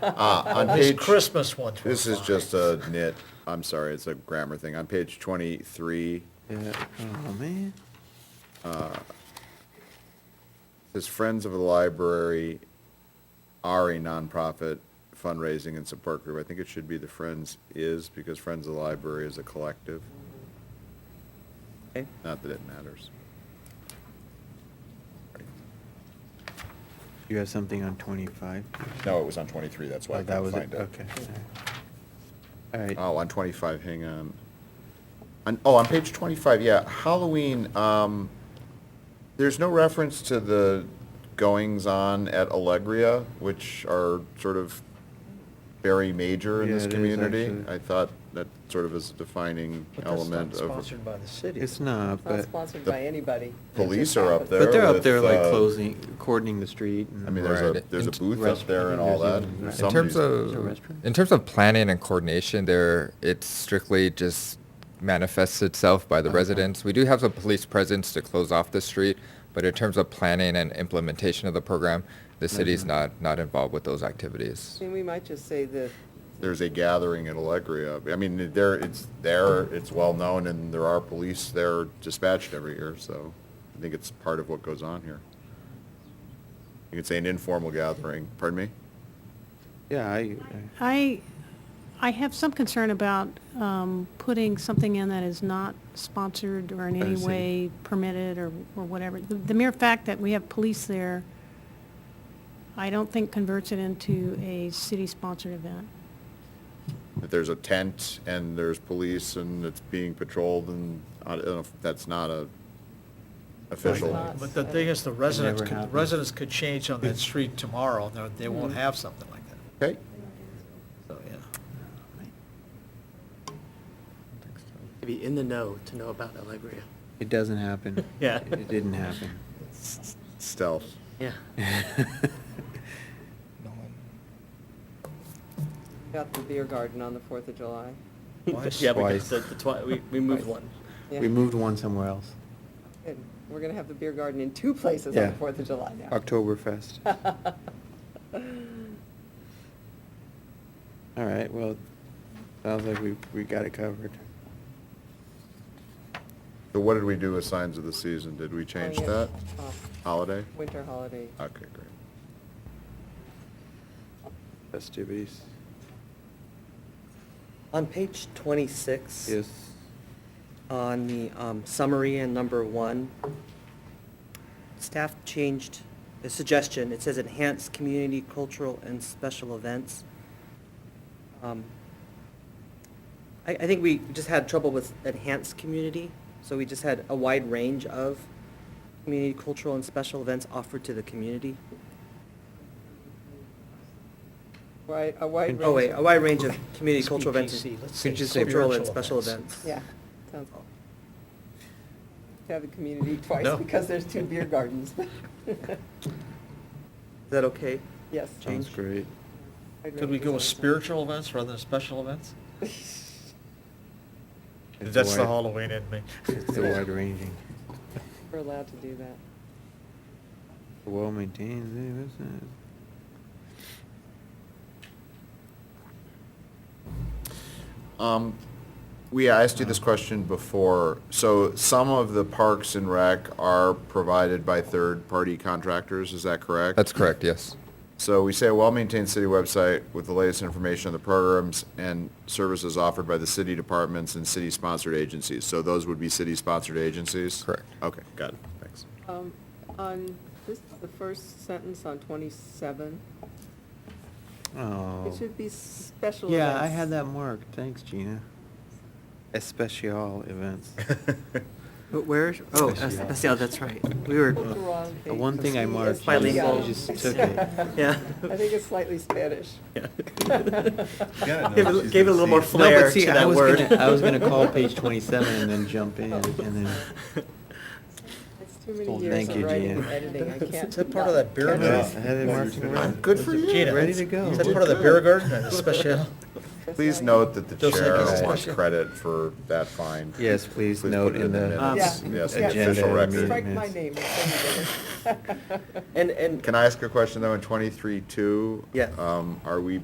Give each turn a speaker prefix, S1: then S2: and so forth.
S1: Uh, on
S2: This
S1: page,
S2: Christmas one's.
S1: this is just a nit, I'm sorry, it's a grammar thing. On page twenty-three,
S3: Yeah, oh, man.
S1: His Friends of the Library are a nonprofit fundraising and support group. I think it should be the Friends is, because Friends of the Library is a collective.
S3: Okay.
S1: Not that it matters.
S3: You have something on twenty-five?
S1: No, it was on twenty-three, that's why I
S3: Oh, that
S1: couldn't
S3: was
S1: find
S3: it,
S1: it.
S3: okay. All right,
S1: Oh, on twenty-five, hang on. On, oh, on page twenty-five, yeah, Halloween, um, there's no reference to the goings-on at Allegria, which are sort of very major in
S3: Yeah,
S1: this
S3: it is
S1: community.
S3: actually.
S1: I thought that sort of is a defining
S2: But that's
S1: element
S2: not
S1: of,
S2: sponsored by the city.
S3: it's not,
S4: It's not
S3: but,
S4: sponsored
S1: the
S4: by anybody.
S1: police are up there
S3: but they're up
S1: with,
S3: there like
S1: uh,
S3: closing, cordoning the street and.
S1: I mean, there's a,
S5: Right.
S1: there's a
S5: In-
S1: booth up there and all that.
S3: Restaurant. In
S5: In
S1: Somebody's-
S5: terms
S3: Is there a restaurant?
S5: of, in terms of planning and coordination, there, it strictly just manifests itself by the
S3: Okay.
S5: residents. We do have some police presence to close off the street, but in terms of planning and implementation of the program, the city's
S3: Mhm.
S5: not, not involved with those activities.
S4: I mean, we might just say that
S1: there's a gathering at Allegria. I mean, there, it's there, it's well-known, and there are police there dispatched every year, so I think it's part of what goes on here. You could say an informal gathering, pardon me?
S3: Yeah, I, I-
S6: I, I have some concern about um, putting something in that is not sponsored or in
S3: I
S6: any
S3: see.
S6: way permitted or, or whatever. The- The mere fact that we have police there, I don't think converts it into a city-sponsored event.
S1: That there's a tent, and there's police, and it's being patrolled, and I don't know if that's not a official.
S4: Like
S2: But the thing is, the residents,
S3: never
S2: could-
S3: happened.
S2: residents could change on that street tomorrow, and they're- they won't
S3: Mm-hmm.
S2: have something like that,
S1: Okay,
S2: so, yeah.
S7: to be in the know to know about Allegria.
S3: it doesn't happen.
S2: Yeah.
S3: It didn't happen.
S1: stealth.
S7: Yeah.
S4: we got the beer garden on the Fourth of July.
S2: Twice.
S7: Yeah,
S3: Twice.
S7: because the, the twi- we, we moved one.
S4: Yeah.
S3: We moved one somewhere else,
S4: Good. We're gonna have the beer garden in two places on
S3: Yeah.
S4: the Fourth of July now.
S3: Oktoberfest. All right, well, sounds like we, we got it covered.
S1: So what did we do with signs of the season? Did we change
S4: Oh, yeah.
S1: that?
S4: Oh,
S1: Holiday?
S4: Winter holiday.
S1: Okay, great.
S3: Festivities,
S7: On page twenty-six.
S3: yes.
S7: on the um, summary and number one, staff changed the suggestion. It says enhance community cultural and special events. Um, I, I think we just had trouble with enhanced community, so we just had a wide range of community cultural and special events offered to the community.
S4: Wide, a wide range.
S7: Oh, wait, a wide range of community
S2: It's
S7: cultural events,
S2: BPC,
S7: and
S2: let's say
S7: cultural
S2: spiritual
S7: and special
S2: events.
S7: events.
S4: Yeah. Sounds, to have the community twice
S2: No.
S4: because there's two beer gardens.
S7: Is that okay?
S4: Yes.
S3: Sounds
S7: Change.
S3: great.
S4: Wide
S2: Could we
S4: range
S2: go with
S4: is
S2: spiritual events rather than special events?
S3: It's a
S2: That's the
S3: wide-
S2: Halloween in me.
S3: It's a wide ranging,
S4: We're allowed to do that.
S3: well maintained, eh, isn't it?
S1: Um, We asked you this question before. So some of the parks and rec are provided by third-party contractors, is that correct?
S5: That's correct, yes.
S1: So we say a well-maintained city website with the latest information on the programs and services offered by the city departments and city-sponsored agencies. So those would be city-sponsored agencies?
S5: Correct.
S1: Okay, got it, thanks.
S4: Um, On, this is the first sentence on 27.
S3: Oh.
S4: It should be special events.
S3: Yeah, I had that marked. Thanks, Gina. Especial events.
S7: But where, oh, that's, that's- yeah, that's right. We were,
S4: Look wrong
S3: The one thing I
S4: page.
S3: marked,
S4: It's
S7: you
S4: slightly-
S7: just
S3: took it.
S7: Yeah.
S4: I think it's slightly Spanish.
S7: Yeah.
S1: Got
S7: Gave it- gave it a little more flair
S3: see,
S7: to
S3: I
S7: that
S3: was
S7: word.
S3: gonna- I was gonna call page 27 and then jump in, and then-
S4: It's too many
S3: Oh,
S4: years
S3: thank
S4: of
S3: you,
S4: writing and
S3: Gina.
S4: editing, I can't.
S2: Is that part of that beer
S4: Yeah.
S3: Yeah, I
S2: garden?
S3: had it marked and marked.
S1: Good for you.
S2: Gina,
S3: Ready to go.
S2: Is
S3: You
S2: that
S3: did
S2: part of the
S1: good.
S2: beer garden or the special?
S1: Please note that the
S2: Just like
S1: chair
S2: it's
S1: wants
S2: special.
S1: credit for that find.
S3: Yes, please
S1: put
S3: note
S1: it
S3: in the
S1: minutes.
S4: Yeah.
S1: Yes,
S4: Yeah.
S1: the official
S3: Agenda
S1: record.
S3: meeting.
S4: Strike my name. it's so ridiculous.
S7: And, and
S1: Can I ask a question though, in twenty-three two?
S7: Yeah.
S1: Um, are we